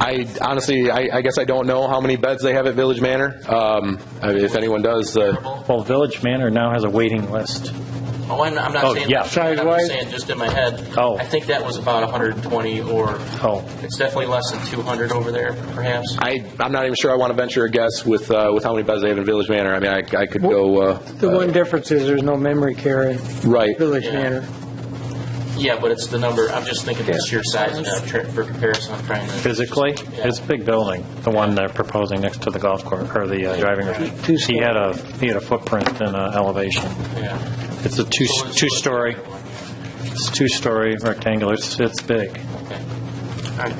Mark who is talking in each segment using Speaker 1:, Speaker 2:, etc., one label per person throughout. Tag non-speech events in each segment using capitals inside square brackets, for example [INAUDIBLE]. Speaker 1: I honestly, I, I guess I don't know how many beds they have at Village Manor. Um, I mean, if anyone does, uh,
Speaker 2: Well, Village Manor now has a waiting list.
Speaker 3: Oh, I'm I'm
Speaker 2: Oh,
Speaker 3: not saying,
Speaker 2: yeah.
Speaker 3: that. I'm
Speaker 2: Size-wise?
Speaker 3: just saying, just in my head.
Speaker 2: Oh.
Speaker 3: I think that was about 120, or
Speaker 2: Oh,
Speaker 3: it's definitely less than 200 over there, perhaps.
Speaker 1: I, I'm not even sure I want to venture a guess with, uh, with how many beds they have in Village Manor. I mean, I, I could go, uh,
Speaker 4: The one difference is there's no memory care in
Speaker 1: right.
Speaker 4: Village
Speaker 3: Yeah.
Speaker 4: Manor.
Speaker 3: Yeah, but it's the number, I'm just thinking the sheer size, and I'm tr- for comparison, I'm trying to.
Speaker 2: physically, it's a big building, the one they're proposing next to the golf course, or the uh, driving range.
Speaker 4: Two
Speaker 2: He had a, he had a footprint and a elevation.
Speaker 3: Yeah,
Speaker 2: It's a two, two-story, it's two-story rectangular, it's, it's big.
Speaker 3: okay. All right.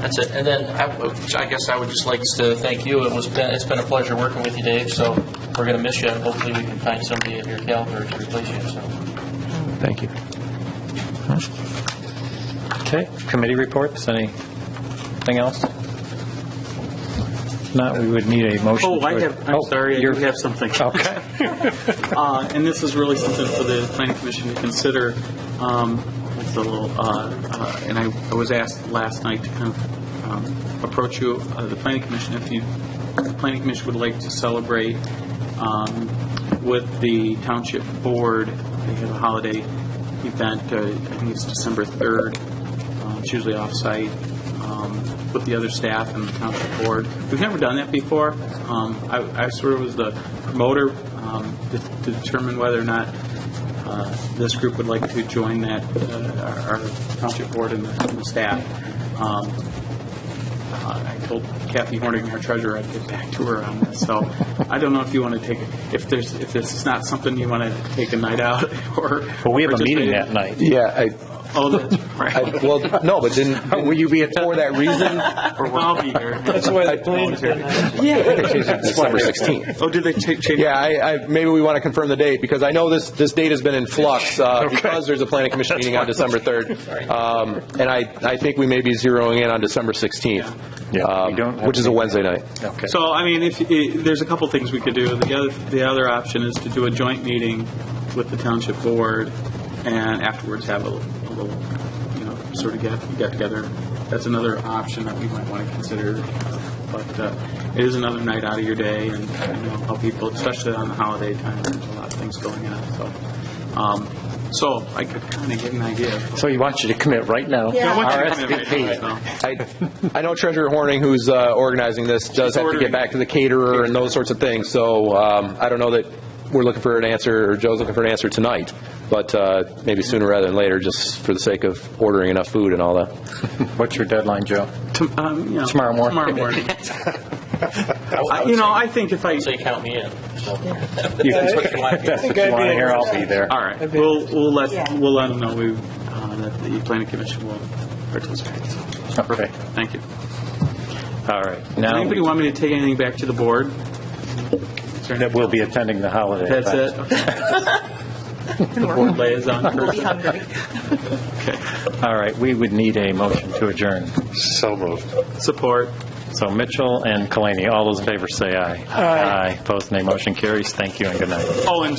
Speaker 3: That's it. And then I would- I guess I would just like to thank you. It was, been- it's been a pleasure working with you, Dave, so we're going to miss you, and hopefully we can find somebody of your caliber to replace you, so.
Speaker 2: Thank you. Okay, committee reports, anything else? If Not, we would need a motion.
Speaker 5: Oh, I
Speaker 2: to-
Speaker 5: have, I'm
Speaker 2: Oh,
Speaker 5: sorry, I do
Speaker 2: you're- [LAUGHS]
Speaker 5: have something.
Speaker 2: Okay.
Speaker 5: Uh, And this is really something for the planning commission to consider. Um, It's a little, uh, uh, and I I was asked last night to kind of um, approach you, uh, the planning commission, if you, the planning commission would like to celebrate um, with the township board, they have a holiday event, uh, I think it's December 3rd, Uh, it's usually off-site um, with the other staff and the township board. We've never done that before. Um, I I sort of was the promoter um, to to determine whether or not uh, this group would like to join that, uh, our our township board and the and the staff. Um, uh, I told Kathy Horning, our treasurer, I'd get back to her on this. So I don't know if you want to take, if there's, if this is not something you want to take a night out [LAUGHS] or.
Speaker 2: Well, we have
Speaker 5: or
Speaker 2: a
Speaker 5: just
Speaker 2: meeting
Speaker 5: wait-
Speaker 2: that night.
Speaker 1: Yeah, I,
Speaker 5: Oh, that's
Speaker 2: [LAUGHS]
Speaker 1: I,
Speaker 5: right.
Speaker 1: well, no, but didn't, [LAUGHS] will you be at, for that [LAUGHS] reason?
Speaker 5: I'll be here.
Speaker 2: [LAUGHS]
Speaker 1: I- They changed it to December 16th.
Speaker 5: Oh, did
Speaker 2: [LAUGHS]
Speaker 5: they ta- change?
Speaker 1: Yeah, I, I, maybe we want to confirm the date, because I know this, this date has been in flux, uh, because there's a planning commission meeting on December 3rd. Um, and I, I think we may be zeroing in on December 16th.
Speaker 2: Yeah.
Speaker 1: um,
Speaker 2: We don't have
Speaker 1: Which is a
Speaker 2: to-
Speaker 1: Wednesday night.
Speaker 2: Okay.
Speaker 5: So, I mean, if, i there's a couple things we could do. The other, the other option is to do a joint meeting with the township board and afterwards have a, a little, you know, sort of get, get together. That's another option that we might want to consider. But uh, it is another night out of your day and, you know, how people, especially on the holiday time, there's a lot of things going on, so. Um, so I could kind of get an idea.
Speaker 2: So you want you to commit right now?
Speaker 5: I want you to come in right
Speaker 2: RSVP.
Speaker 5: now, so.
Speaker 1: I, I know Treasurer Horning, who's uh, organizing this, does have to get
Speaker 5: ordering.
Speaker 1: back to the caterer and those sorts of things, so um, I don't know that we're looking for an answer, or Joe's looking for an answer tonight, but uh, maybe sooner rather than later, just for the sake of ordering enough food and all that.
Speaker 2: What's your deadline, Joe?
Speaker 5: Tom- um, you know,
Speaker 2: Tomorrow morning. [LAUGHS]
Speaker 5: Tomorrow morning. I- You know, I think if I,
Speaker 3: So you count me in. so.
Speaker 2: You-
Speaker 3: That's what you want
Speaker 2: [LAUGHS]
Speaker 3: to do.
Speaker 2: If you want to hear, I'll be there.
Speaker 5: all right, we'll, we'll let,
Speaker 6: Yeah.
Speaker 5: we'll let them know we, uh, that the planning commission will participate. So,
Speaker 2: Okay,
Speaker 5: Thank you.
Speaker 2: all right.
Speaker 5: Does
Speaker 2: Now,
Speaker 5: anybody want me to take anything back to the board?
Speaker 2: that we'll be attending the holiday.
Speaker 5: That's
Speaker 2: event.
Speaker 5: it? Okay. [LAUGHS] The board liaison person.
Speaker 6: Be hungry.
Speaker 2: All right, we would need a motion to adjourn.
Speaker 7: So moved.
Speaker 5: Support.
Speaker 2: So Mitchell and Kalani, all those in favor say aye. Aye. Opposed, nay. Motion carries. Thank you and good night.
Speaker 5: Oh, and